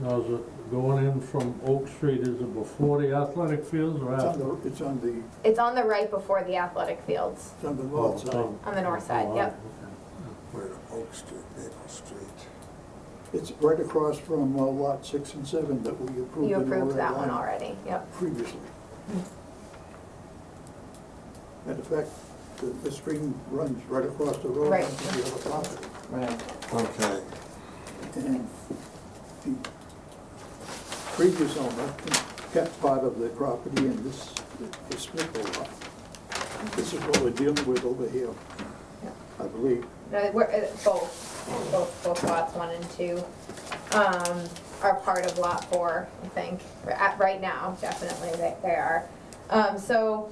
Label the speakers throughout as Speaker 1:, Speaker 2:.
Speaker 1: Now, is it going in from Oak Street, is it before the athletic fields or
Speaker 2: It's on
Speaker 1: after?
Speaker 2: the, it's on the,
Speaker 3: It's on the right before the athletic fields,
Speaker 2: it's on the
Speaker 1: Oh, it's
Speaker 2: north side.
Speaker 1: on-
Speaker 3: on the north side,
Speaker 1: oh,
Speaker 3: yep.
Speaker 1: okay.
Speaker 4: Where Oak Street, Maple Street.
Speaker 2: It's right across from uh, lot six and seven that we approved.
Speaker 3: You
Speaker 2: in
Speaker 3: approved
Speaker 2: Oregon
Speaker 3: that one
Speaker 2: Line
Speaker 3: already, yep.
Speaker 2: Previously. And in fact, the, the stream runs right across the road
Speaker 3: Right.
Speaker 2: onto the other property.
Speaker 5: Right.
Speaker 4: Okay,
Speaker 2: And the previous owner kept part of the property and this, the Smith lot. This is what we're dealing with over here, I believe.
Speaker 3: No, we're, uh, both, both, both lots one and two, um, are part of lot four, I think. Or At, right now, definitely, they, they are. Um, so,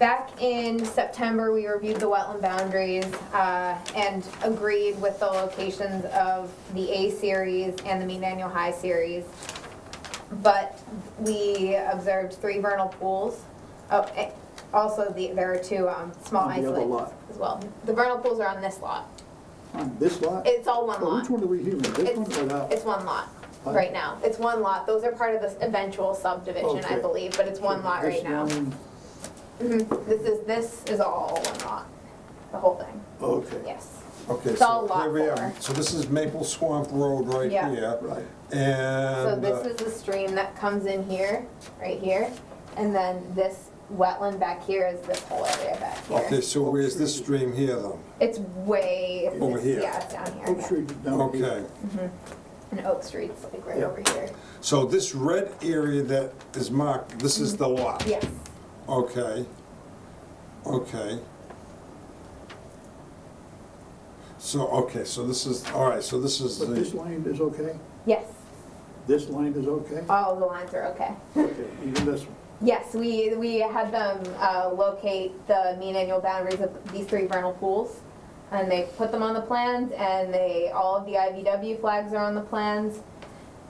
Speaker 3: back in September, we reviewed the wetland boundaries, uh, and agreed with the locations of the A series and the mean annual high series. But we observed three vernal pools. Oh, eh, also, the, there are two, um, small
Speaker 2: On the other
Speaker 3: isolates
Speaker 2: lot.
Speaker 3: as well. The vernal pools are on this lot.
Speaker 2: On this lot?
Speaker 3: It's all one
Speaker 2: Well,
Speaker 3: lot.
Speaker 2: Which one are we hearing? This one or that?
Speaker 3: It's, it's one lot,
Speaker 2: Huh?
Speaker 3: right now. It's one lot. Those are part of this eventual subdivision, I
Speaker 2: Okay.
Speaker 3: believe, but it's one lot right
Speaker 2: This
Speaker 3: now.
Speaker 2: one-
Speaker 3: Mhm. This is, this is all one lot, the whole thing,
Speaker 2: Okay,
Speaker 3: yes.
Speaker 4: okay,
Speaker 3: It's
Speaker 4: so
Speaker 3: all lot
Speaker 4: here we are.
Speaker 3: four.
Speaker 4: So this is Maple Swamp Road right
Speaker 3: Yeah.
Speaker 4: here.
Speaker 2: right.
Speaker 3: So
Speaker 4: And,
Speaker 3: this
Speaker 4: uh,
Speaker 3: is the stream that comes in here, right here, and then this wetland back here is this whole area back
Speaker 4: okay,
Speaker 3: here.
Speaker 4: so where's this stream here then?
Speaker 3: It's way, it's-
Speaker 4: Over here.
Speaker 3: yeah, it's down here,
Speaker 2: Oak
Speaker 3: yeah.
Speaker 2: Street is down here.
Speaker 4: Okay,
Speaker 3: And Oak Street's like right
Speaker 2: Yeah.
Speaker 3: over here,
Speaker 4: so this red area that is marked, this is the lot?
Speaker 3: yes.
Speaker 4: Okay, okay. So, okay, so this is, all right, so this is
Speaker 2: But this
Speaker 4: the,
Speaker 2: line is okay?
Speaker 3: Yes,
Speaker 2: This line is okay?
Speaker 3: all the lines are okay.
Speaker 2: Okay, even this one?
Speaker 3: Yes, we, we had them uh, locate the mean annual boundaries of these three vernal pools. And they put them on the plans and they, all of the IVW flags are on the plans.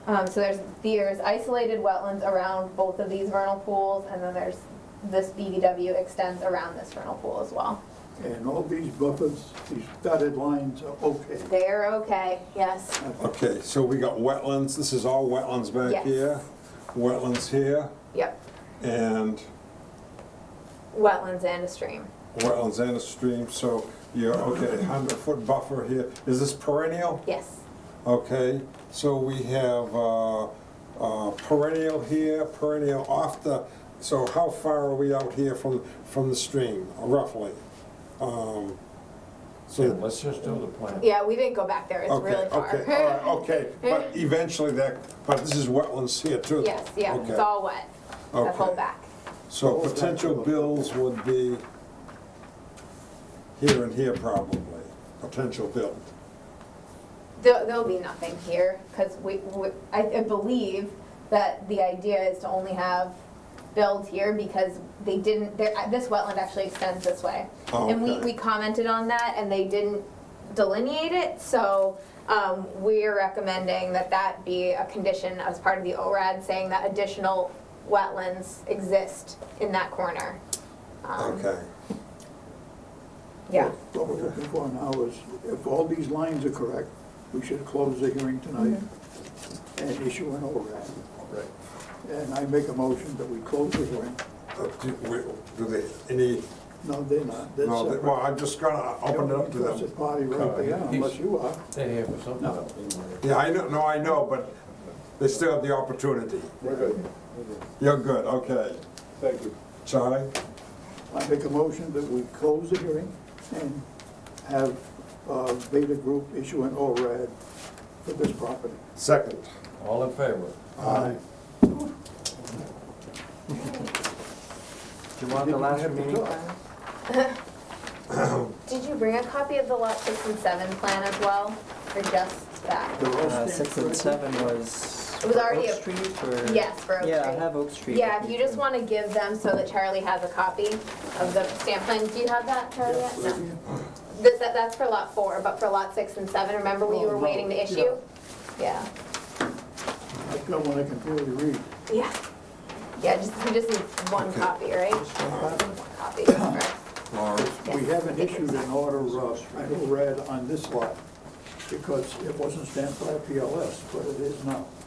Speaker 3: Um, so there's, there's isolated wetlands around both of these vernal pools and then there's, this BVW extends around this vernal pool as well.
Speaker 2: And all these buffers, these dotted lines are okay?
Speaker 3: They're okay, yes.
Speaker 4: okay, so we got wetlands, this is all wetlands back
Speaker 3: Yes.
Speaker 4: here, wetlands here,
Speaker 3: Yep,
Speaker 4: and
Speaker 3: wetlands and a stream.
Speaker 4: wetlands and a stream, so you're, okay, hundred foot buffer here. Is this perennial?
Speaker 3: Yes,
Speaker 4: Okay, so we have uh, uh, perennial here, perennial off the, so how far are we out here from, from the stream, roughly? Um,
Speaker 6: Yeah,
Speaker 4: So,
Speaker 6: let's just do the plan.
Speaker 3: yeah, we didn't go back there, it's
Speaker 4: okay,
Speaker 3: really far.
Speaker 4: okay, Uh, all right, okay, but eventually that, but this is wetlands here too.
Speaker 3: Yes, yeah, it's
Speaker 4: Okay,
Speaker 3: all wet, that whole
Speaker 4: okay.
Speaker 3: back.
Speaker 4: So potential bills would be here and here probably, potential build.
Speaker 3: There, there'll be nothing here, because we, we, I, I believe that the idea is to only have builds here because they didn't, there, uh, this wetland actually extends this way. And we,
Speaker 4: Oh, Okay.
Speaker 3: we commented on that and they didn't delineate it, so, um, we're recommending that that be a condition as part of the ORAD, saying that additional wetlands exist in that corner. Um,
Speaker 4: Okay.
Speaker 3: Yeah.
Speaker 2: What we're looking for now is, if all these lines are correct, we should close the hearing tonight
Speaker 3: Mm-hmm.
Speaker 2: and issue an ORAD.
Speaker 4: Right.
Speaker 2: And I make a motion that we close the hearing.
Speaker 4: Uh, Do we- do they, any,
Speaker 2: No, they're not. They're
Speaker 4: no, they-
Speaker 2: separate.
Speaker 4: well, I'm just gonna open it up to
Speaker 2: It's a
Speaker 4: them.
Speaker 2: party right there, unless you are.
Speaker 6: Stay here for something
Speaker 2: No.
Speaker 6: else.
Speaker 4: Yeah, I know, no, I know, but they still have the opportunity.
Speaker 7: We're good,
Speaker 4: You're good, okay.
Speaker 7: thank you.
Speaker 4: Charlie?
Speaker 2: I make a motion that we close the hearing and have uh, Beta Group issue an ORAD for this property. Uh,
Speaker 4: Second.
Speaker 6: All in favor?
Speaker 5: Uh,
Speaker 2: Aye.
Speaker 5: Do you want the last remaining plan?
Speaker 3: Did you bring a copy of the lot six and seven plan as well, or just that?
Speaker 2: They're all
Speaker 5: Uh, Six and
Speaker 2: stamped
Speaker 5: seven was.
Speaker 3: It was already
Speaker 5: Oak
Speaker 3: a-
Speaker 5: Street or?
Speaker 3: Yes, for Oak
Speaker 5: Yeah, I
Speaker 3: Street.
Speaker 5: have Oak Street.
Speaker 3: Yeah, if you just want to give them so that Charlie has a copy of the stamp plan, do you have that, Charlie? yet?
Speaker 2: right?
Speaker 3: No. This, that- that's for lot four, but for lot six and seven, remember we
Speaker 2: Oh,
Speaker 3: were
Speaker 2: no,
Speaker 3: waiting to
Speaker 2: yeah.
Speaker 3: issue? Yeah,
Speaker 2: I've got one I can barely read.
Speaker 3: yeah. Yeah, just, you just need one copy, right? One Copy, right.
Speaker 4: Laurie?
Speaker 2: We haven't issued an order, uh, an ORAD on this lot because it wasn't stamped by PLS, but it is now.